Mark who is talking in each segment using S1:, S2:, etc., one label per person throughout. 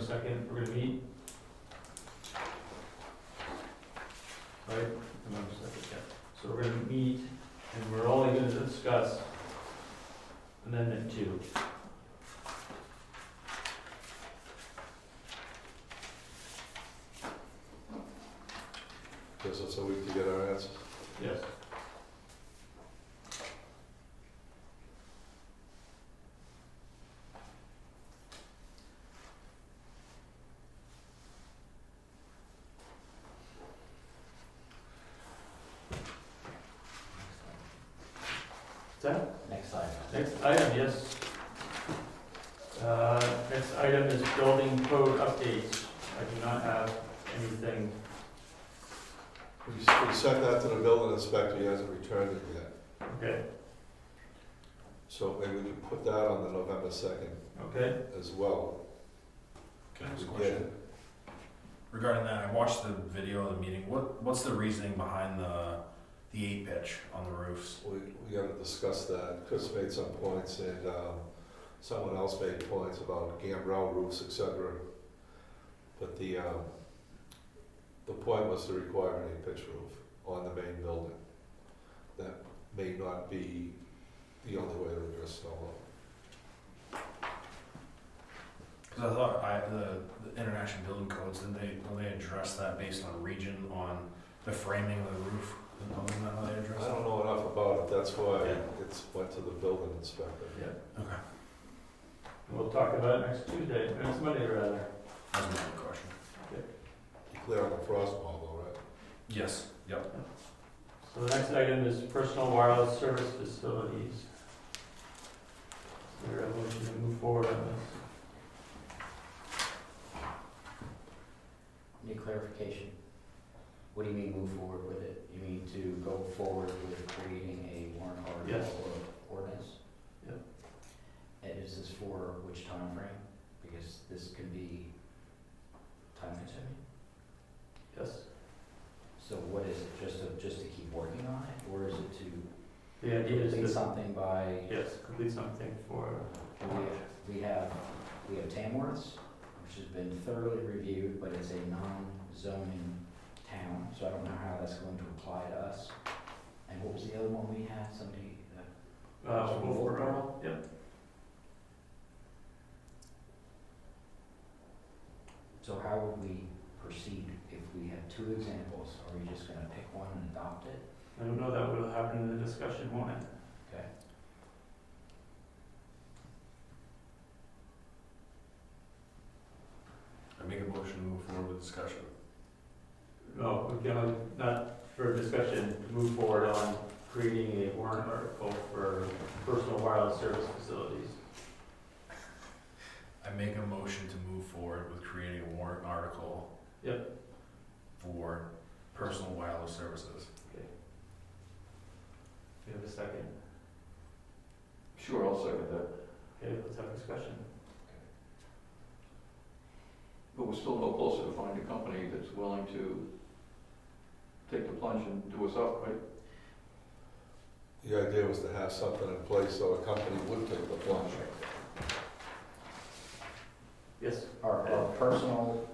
S1: second, we're gonna meet. Right,
S2: November second, yeah.
S1: so we're gonna meet, and we're only gonna discuss amendment two.
S3: Gives us a week to get our answers.
S1: Yes. Is that
S2: Next slide.
S1: Next item, yes. Uh, Next item is building code updates. I do not have anything.
S3: We we sent that to the building inspector, he hasn't returned it yet.
S1: Okay,
S3: So maybe we can put that on the November second
S1: okay.
S3: as well.
S4: Can I ask a
S3: We
S4: question?
S3: get it.
S4: Regarding that, I watched the video of the meeting. What, what's the reasoning behind the, the eight pitch on the roofs?
S3: We, we gotta discuss that. Chris made some points and, um, someone else made points about gambrel roofs, et cetera. But the, um, the point was to require an eight-pitch roof on the main building. That may not be the only way to address snow load.
S4: Because I thought I, the, the international building codes, didn't they, don't they address that based on region on the framing of the roof? Isn't that how they address
S3: I
S4: it?
S3: don't know enough about it, that's why
S1: Yeah.
S3: it's went to the building inspector.
S1: Yeah.
S4: Okay,
S1: We'll talk about it next Tuesday, next Monday rather.
S4: that's my only question.
S3: You Clear on the frost wall, though,
S4: Yes, yep.
S1: So the next item is personal wireless service facilities. Is there a motion to move forward on this?
S2: Need clarification. What do you mean move forward with it? You mean to go forward with creating a warrant article
S1: Yes.
S2: or ordinance?
S1: Yep.
S2: And is this for which time frame? Because this can be time consuming.
S1: Yes.
S2: So what is it, just to, just to keep working on it, or is it to
S1: The idea is
S2: complete
S1: to,
S2: something by,
S1: yes, complete something for,
S2: we, we have, we have Tamworth's, which has been thoroughly reviewed, but it's a non-zoning town, so I don't know how that's going to apply to us. And what was the other one we had, somebody, uh,
S1: uh,
S2: Wolf
S1: Wolfboro.
S2: Borough?
S1: Yep.
S2: so how would we proceed if we have two examples? Are we just gonna pick one and adopt it?
S1: I don't know, that will happen in the discussion, won't it?
S2: Okay.
S4: I make a motion to move forward with discussion.
S1: No, we can, not for discussion, move forward on creating a warrant article for personal wireless service facilities.
S4: I make a motion to move forward with creating a warrant article.
S1: Yep.
S4: For personal wireless services.
S1: Do you have a second?
S3: Sure, I'll second that.
S1: Okay, let's have a discussion.
S5: But we're still no closer to finding a company that's willing to take the plunge and do us up, right?
S3: The idea was to have something in place so a company would take the plunge.
S1: Yes,
S2: Our, our personal,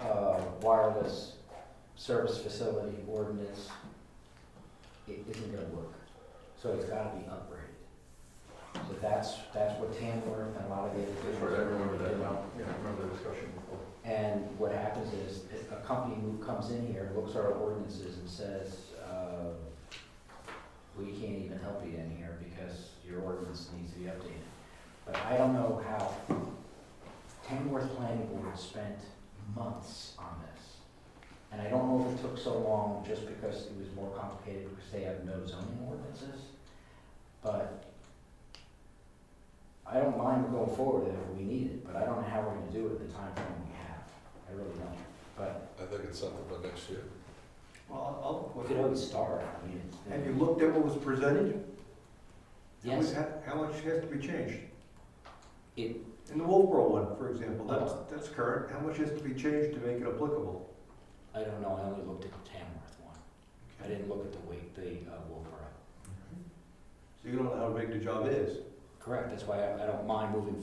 S2: uh, wireless service facility ordinance, it isn't gonna work. So it's gotta be upgraded. So that's, that's what Tamworth and a lot of the other.
S5: That's right, I remember that now, yeah, I remember the discussion.
S2: And what happens is, if a company who comes in here, looks at our ordinances and says, uh, we can't even help you in here because your ordinance needs to be updated. But I don't know how, Tamworth Planning Board spent months on this. And I don't know if it took so long just because it was more complicated because they have no zoning ordinances. But I don't mind going forward with it if we need it, but I don't know how we're gonna do it in the timeframe we have. I really don't. But
S3: I think it's something for next year.
S5: Well,
S2: we could always start, I mean, it's.
S5: looked at what was presented?
S2: Yes,
S5: How much has to be changed?
S2: It-
S5: In the Wolfboro one, for example,
S2: that's-
S5: that's current, how much has to be changed to make it applicable?
S2: I don't know, I only looked at the Tamworth one. I didn't look at the Wake, the uh, Wolfboro.
S5: So you don't know how big the job is?
S2: Correct, that's why I I don't mind moving